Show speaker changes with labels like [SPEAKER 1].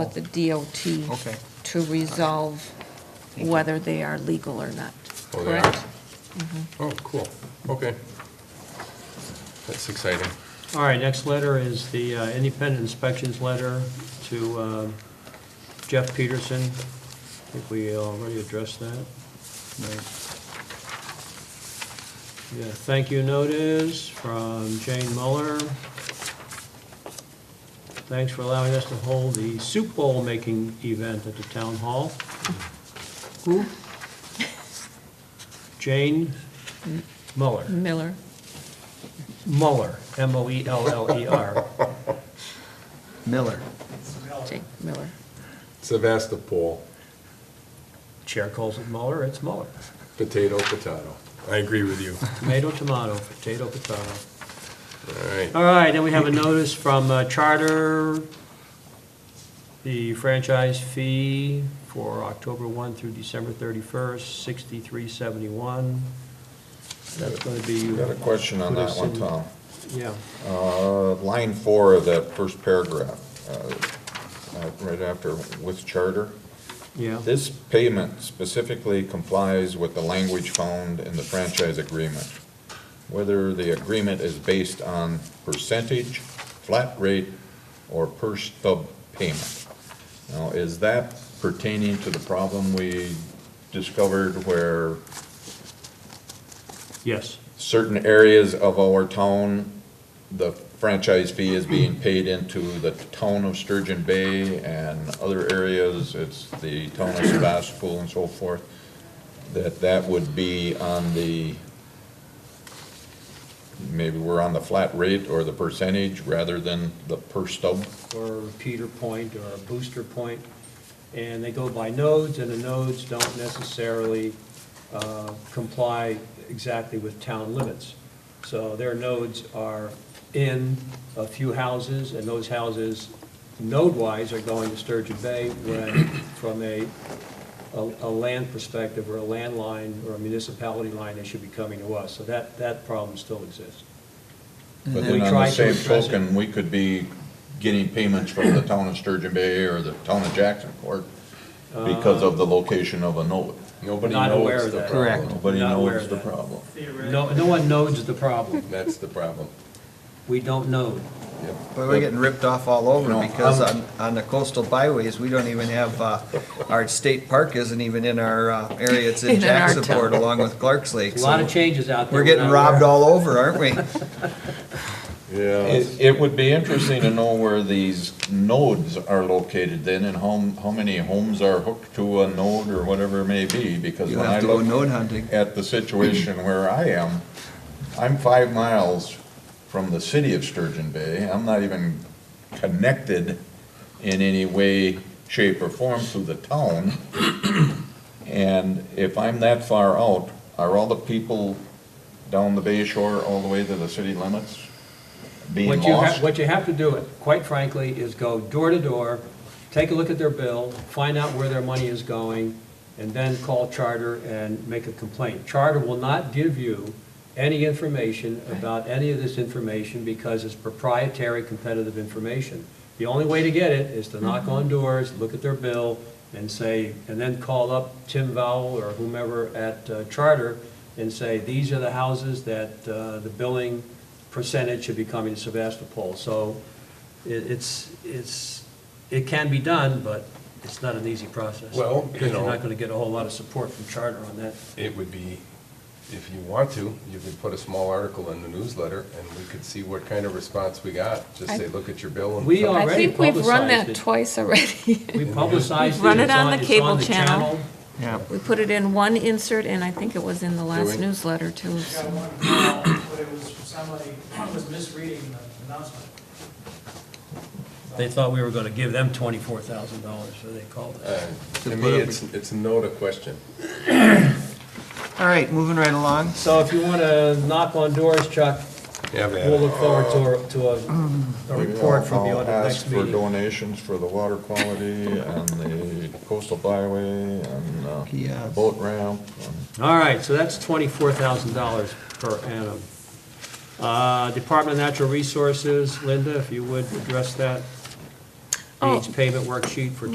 [SPEAKER 1] with the DOT
[SPEAKER 2] Okay.
[SPEAKER 1] to resolve whether they are legal or not.
[SPEAKER 3] Oh, they are?
[SPEAKER 1] Correct?
[SPEAKER 3] Oh, cool, okay. That's exciting.
[SPEAKER 4] All right, next letter is the uh, independent inspections letter to uh, Jeff Peterson. I think we already addressed that. Yeah, thank you notice from Jane Muller. Thanks for allowing us to hold the soup bowl making event at the town hall. Who? Jane Muller.
[SPEAKER 1] Miller,
[SPEAKER 4] Muller, E M-O-E-L-L-E-R.
[SPEAKER 2] Miller.
[SPEAKER 1] Jake Miller.
[SPEAKER 3] Sevastopol,
[SPEAKER 4] Chair calls it Muller, it's Muller.
[SPEAKER 3] potato, potato. I agree with you.
[SPEAKER 4] Tomato, tomato, potato, potato.
[SPEAKER 3] All right.
[SPEAKER 4] All right, then we have a notice from uh, Charter, the franchise fee for October 1 through December 31st, 6371. That's going to be.
[SPEAKER 5] Got a question on that one, Tom.
[SPEAKER 4] Yeah,
[SPEAKER 5] Uh, Line four of that first paragraph, uh, uh, right after with charter.
[SPEAKER 4] yeah.
[SPEAKER 5] This payment specifically complies with the language found in the franchise agreement. Whether the agreement is based on percentage, flat rate, or per stub payment. Now, is that pertaining to the problem we discovered where
[SPEAKER 4] Yes,
[SPEAKER 5] certain areas of our town, the franchise fee is being paid into the town of Sturgeon Bay and other areas, it's the town of Sebastopol and so forth, that that would be on the, maybe we're on the flat rate or the percentage rather than the per stub?
[SPEAKER 4] or a repeater point or a booster point, and they go by nodes, and the nodes don't necessarily uh, comply exactly with town limits. So their nodes are in a few houses, and those houses, node-wise, are going to Sturgeon Bay, when from a, a a land perspective, or a land line, or a municipality line, they should be coming to us. So that, that problem still exists.
[SPEAKER 5] But
[SPEAKER 4] We
[SPEAKER 5] then on
[SPEAKER 4] tried
[SPEAKER 5] the
[SPEAKER 4] to
[SPEAKER 5] same
[SPEAKER 4] address it.
[SPEAKER 5] token, we could be getting payments from the town of Sturgeon Bay or the town of Jacksonport because of the location of a node.
[SPEAKER 3] Nobody
[SPEAKER 4] Not aware
[SPEAKER 3] knows
[SPEAKER 4] of
[SPEAKER 3] the
[SPEAKER 4] that.
[SPEAKER 2] Correct.
[SPEAKER 3] problem.
[SPEAKER 5] Nobody
[SPEAKER 4] Not aware
[SPEAKER 5] knows
[SPEAKER 4] of
[SPEAKER 5] the
[SPEAKER 4] that.
[SPEAKER 5] problem.
[SPEAKER 4] No, no one nodes the problem.
[SPEAKER 3] That's the problem.
[SPEAKER 4] We don't node.
[SPEAKER 3] Yep.
[SPEAKER 2] But we're getting ripped off all
[SPEAKER 5] You
[SPEAKER 2] over
[SPEAKER 5] know,
[SPEAKER 2] because on, on the coastal byways, we don't even have, uh, our state park isn't even in our, uh, area. It's in
[SPEAKER 1] In our town.
[SPEAKER 2] Jacksonport along with Clark's Lake.
[SPEAKER 4] A lot
[SPEAKER 2] so
[SPEAKER 4] of changes out there.
[SPEAKER 2] We're getting
[SPEAKER 4] not aware
[SPEAKER 2] robbed
[SPEAKER 4] of.
[SPEAKER 2] all over, aren't we?
[SPEAKER 3] Yeah.
[SPEAKER 5] It, it would be interesting to know where these nodes are located then and how, how many homes are hooked to a node or whatever it may be, because
[SPEAKER 2] You'll
[SPEAKER 5] when I
[SPEAKER 2] have to go
[SPEAKER 5] look
[SPEAKER 2] node hunting.
[SPEAKER 5] at the situation where I am, I'm five miles from the city of Sturgeon Bay. I'm not even connected in any way, shape, or form to the town. And if I'm that far out, are all the people down the bay shore all the way to the city limits being
[SPEAKER 4] What you, ha-
[SPEAKER 5] lost?
[SPEAKER 4] what you have to do, quite frankly, is go door to door, take a look at their bill, find out where their money is going, and then call Charter and make a complaint. Charter will not give you any information about any of this information because it's proprietary competitive information. The only way to get it is to knock on doors, look at their bill, and say, and then call up Tim Vowell or whomever at uh, Charter and say, these are the houses that uh, the billing percentage should be coming to Sebastopol. So it- it's, it's, it can be done, but it's not an easy process.
[SPEAKER 3] Well, you
[SPEAKER 4] Because you're
[SPEAKER 3] know-
[SPEAKER 4] not going to get a whole lot of support from Charter on that.
[SPEAKER 3] It would be, if you want to, you could put a small article in the newsletter and we could see what kind of response we got. Just
[SPEAKER 1] I-
[SPEAKER 3] say, look at your bill and.
[SPEAKER 4] We
[SPEAKER 1] I
[SPEAKER 4] are- Oh, Already
[SPEAKER 1] think we've run
[SPEAKER 4] publicized
[SPEAKER 1] that
[SPEAKER 4] it.
[SPEAKER 1] twice already.
[SPEAKER 4] We publicized it.
[SPEAKER 1] Run it
[SPEAKER 4] it's
[SPEAKER 1] on the
[SPEAKER 4] it's
[SPEAKER 1] cable
[SPEAKER 4] the
[SPEAKER 1] channel.
[SPEAKER 2] Yeah.
[SPEAKER 1] We put it in one insert, and I think it was in the last
[SPEAKER 3] we?
[SPEAKER 1] newsletter, too.
[SPEAKER 6] got one call, but it was from somebody, who was misreading the announcement.
[SPEAKER 4] They thought we were going to give them $24,000, so they called us.
[SPEAKER 3] Uh,
[SPEAKER 2] To
[SPEAKER 3] To
[SPEAKER 2] put
[SPEAKER 3] me,
[SPEAKER 2] up-
[SPEAKER 3] it's, it's no to question.
[SPEAKER 2] All right, moving right along.
[SPEAKER 4] So if you want to knock on doors, Chuck,
[SPEAKER 3] Yeah, man.
[SPEAKER 4] we'll look forward to, a- to a, a report from you
[SPEAKER 5] Uh, I'll
[SPEAKER 4] on the
[SPEAKER 5] ask
[SPEAKER 4] next
[SPEAKER 5] for
[SPEAKER 4] meeting.
[SPEAKER 5] donations for the water quality and the coastal byway and uh,
[SPEAKER 2] Yes.
[SPEAKER 5] the boat ramp. and-
[SPEAKER 4] All right, so that's twenty-four thousand dollars per annum. Uh, Department of Natural Resources, Linda, if you would address that.
[SPEAKER 1] Oh.
[SPEAKER 4] page payment worksheet for